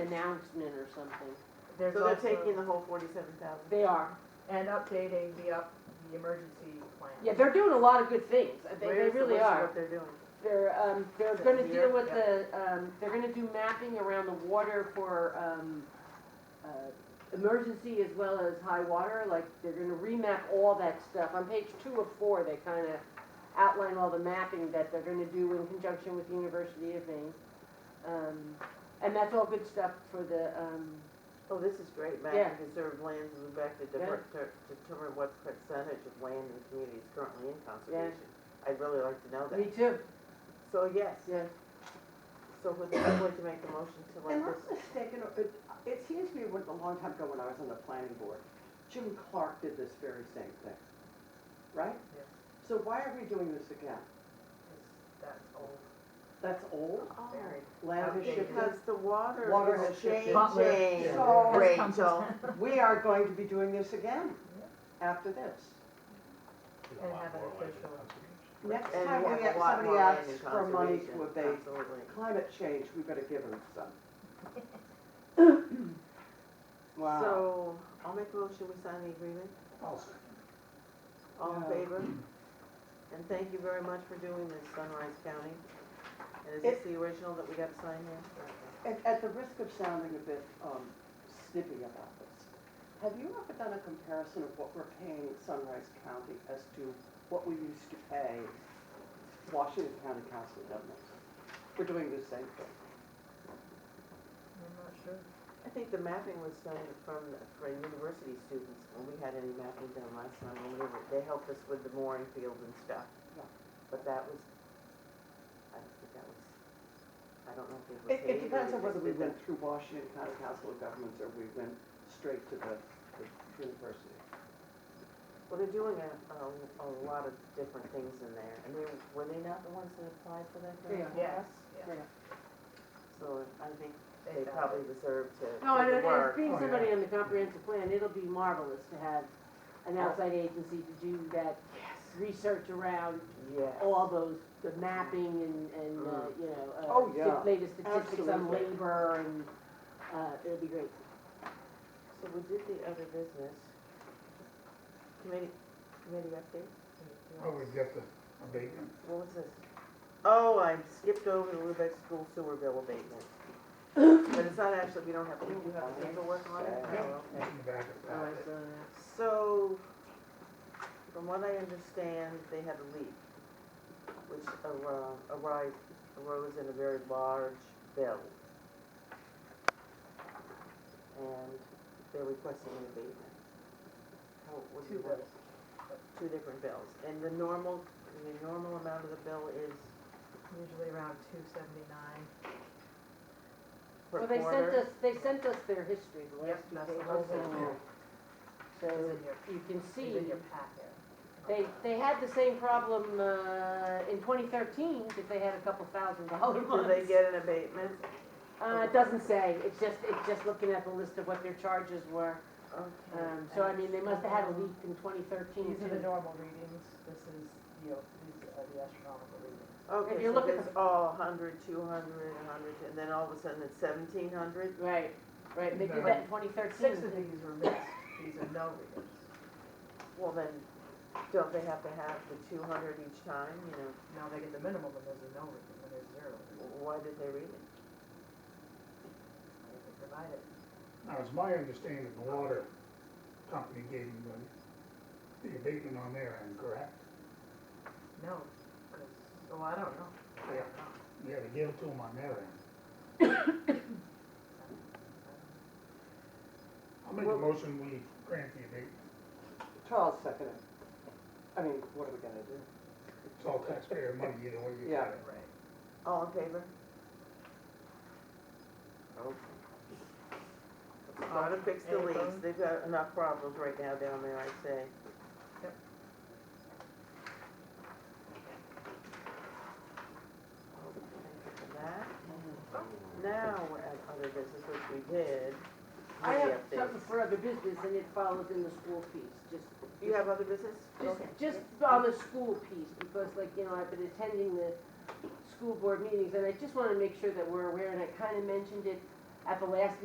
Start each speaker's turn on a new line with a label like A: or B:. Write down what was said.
A: announcement or something.
B: There's
C: So they're
B: also,
C: taking the whole forty-seven thousand?
A: They are.
B: and updating the up, the emergency plan.
A: Yeah, they're doing a lot of good things. They, they really are.
C: What they're doing.
A: They're, um, they're
B: Good
A: gonna
B: idea.
A: deal with the, um, they're gonna do mapping around the water for, um, uh, emergency as well as high water, like, they're gonna remap all that stuff. On page two of four, they kinda outline all the mapping that they're gonna do in conjunction with the University of Maine. Um, and that's all good stuff for the, um,
C: Oh, this is great, Matt,
A: Yeah.
C: and conserve lands and back to deter- ter- determine what percentage of land in the community is currently in conservation. I'd really like to know
A: me
C: that.
A: too,
C: So yes,
A: yeah.
C: so would you like to make a motion to let
D: Unless
C: this?
D: mistaken, it, it seems to me it was a long time ago when I was on the planning board, Jim Clark did this very same thing, right?
B: Yes,
D: So why are we doing this again?
B: 'cause that's old,
D: That's old,
A: Oh.
B: buried.
D: land has shifted.
C: Because the water
D: Water
C: is
D: has shifted.
B: Butler.
C: changing,
D: So-
C: Rachel.
D: We are going to be doing this again after this.
E: There's a
B: And
E: lot
B: have an
E: more land in
B: official-
E: conservation.
D: Next
C: And
D: time
C: we
D: we,
C: have a lot
D: somebody
C: more land
D: asks
C: in
D: for money
C: conservation,
D: to abate
C: Absolutely.
D: climate change, we better give them some. Wow.
C: So I'll make a motion, we sign the agreement, all in
D: Yeah.
C: favor? And thank you very much for doing this, Sunrise County. And is this
D: It-
C: the original that we got to sign here?
D: At, at the risk of sounding a bit um, snippy about this, have you ever done a comparison of what we're paying Sunrise County as to what we used to pay Washington County Council of Governments? We're doing the same thing.
B: I'm not sure.
C: I think the mapping was done from, for university students, when we had any mapping done last time, or whatever, they helped us with the mooring field and stuff.
D: Yeah.
C: But that was, I don't think that was, I don't know if they were
D: It,
C: paid.
D: it depends
C: or they
D: on whether
C: just
D: we
C: did that.
D: went through Washington County Council of Governments or we went straight to the the university.
C: Well, they're doing a, a, a lot of different things in there, and they, were they not the ones that applied for that grant?
D: Yeah.
B: Yes,
D: Yeah.
B: yeah.
C: So I think
B: They
C: they
B: found
C: probably
B: it.
C: deserve to
A: No,
C: do
A: and
C: the
A: it is,
C: work.
A: being
E: Oh,
A: somebody
E: yeah.
A: on the comprehensive plan, it'll be marvelous to have an outside agency to do that research around
C: Yes.
A: all those, the mapping and, and, uh,
B: Mm-hmm.
A: you know, uh,
D: Oh, yeah.
A: sti- latest statistics on
D: Absolutely.
A: labor and, uh, it'll be great.
C: So we did the other business. Committee, committee update? Oh,
E: Well, we get the abatement.
C: What was this? Oh, I skipped over the Lubec School sewer bill abatement. But it's not actually, we don't have, we do have the paperwork on it?
E: Yeah.
C: Oh, okay.
E: It's in the back of the
A: Oh, I
E: packet.
A: saw that.
C: So, from what I understand, they had a leak, which ar- arise, arose in a very large bill. And they're requesting an abatement. How, what do
B: Two
C: you want? Two different bills, and the normal, the normal amount of the bill is
B: Usually around two seventy-nine.
C: per
A: Well,
C: quarter?
A: they sent us, they sent us their history, the last
B: Yep,
A: two
B: that's the
A: pages.
B: whole thing.
A: so-
B: It's
A: So
B: in your,
A: you can
B: it's
A: see,
B: in your packet.
A: they, they had the same problem, uh, in twenty thirteen, because they had a couple thousand dollar
C: Do
A: ones.
C: they get an abatement?
A: Uh, it doesn't say, it's just, it's just looking at the list of what their charges were.
C: Okay.
A: Um, so I mean, they must have had a leak in twenty thirteen
B: These are the
A: too.
B: normal readings, this is, you know, these are the astronomical readings.
C: Okay,
A: If you
C: so
A: look at
C: it's all hundred, two hundred, a hundred, and then all of a sudden it's seventeen hundred?
A: Right, right, they did
E: No.
A: that in twenty
B: Six of
A: thirteen.
B: these were missed, these are no readings.
C: Well, then, don't they have to have the two hundred each time, you know,
B: Now they get the minimum when there's a no reading, when there's zero readings,
C: why did they read it?
B: they have to provide it.
E: Now, it's my understanding the water company gave them the- the abatement on their end, correct?
B: No, because, oh, I don't know. I
E: Yeah.
B: don't know.
E: Yeah, they gave it to them on their end. I'll make a
C: Well-
E: motion, we grant the abatement.
D: Charles seconded. I mean, what are we gonna do?
E: It's all taxpayer money, either way you
D: Yeah.
E: cut it.
B: Right.
C: All in favor? Okay. Gotta fix the
B: Any
C: leaks,
B: opposed?
C: they've got enough problems right now down there, I'd say.
B: Yep.
C: Okay, thank you for that.
A: Oh.
C: Now, we're at other business, which we did.
A: I
C: Committee
A: have
C: updates.
A: something for other business and it follows in the school piece, just,
C: You have other business? Okay.
A: just, just on the school piece, because like, you know, I've been attending the school board meetings and I just wanna make sure that we're aware, and I kinda mentioned it at the last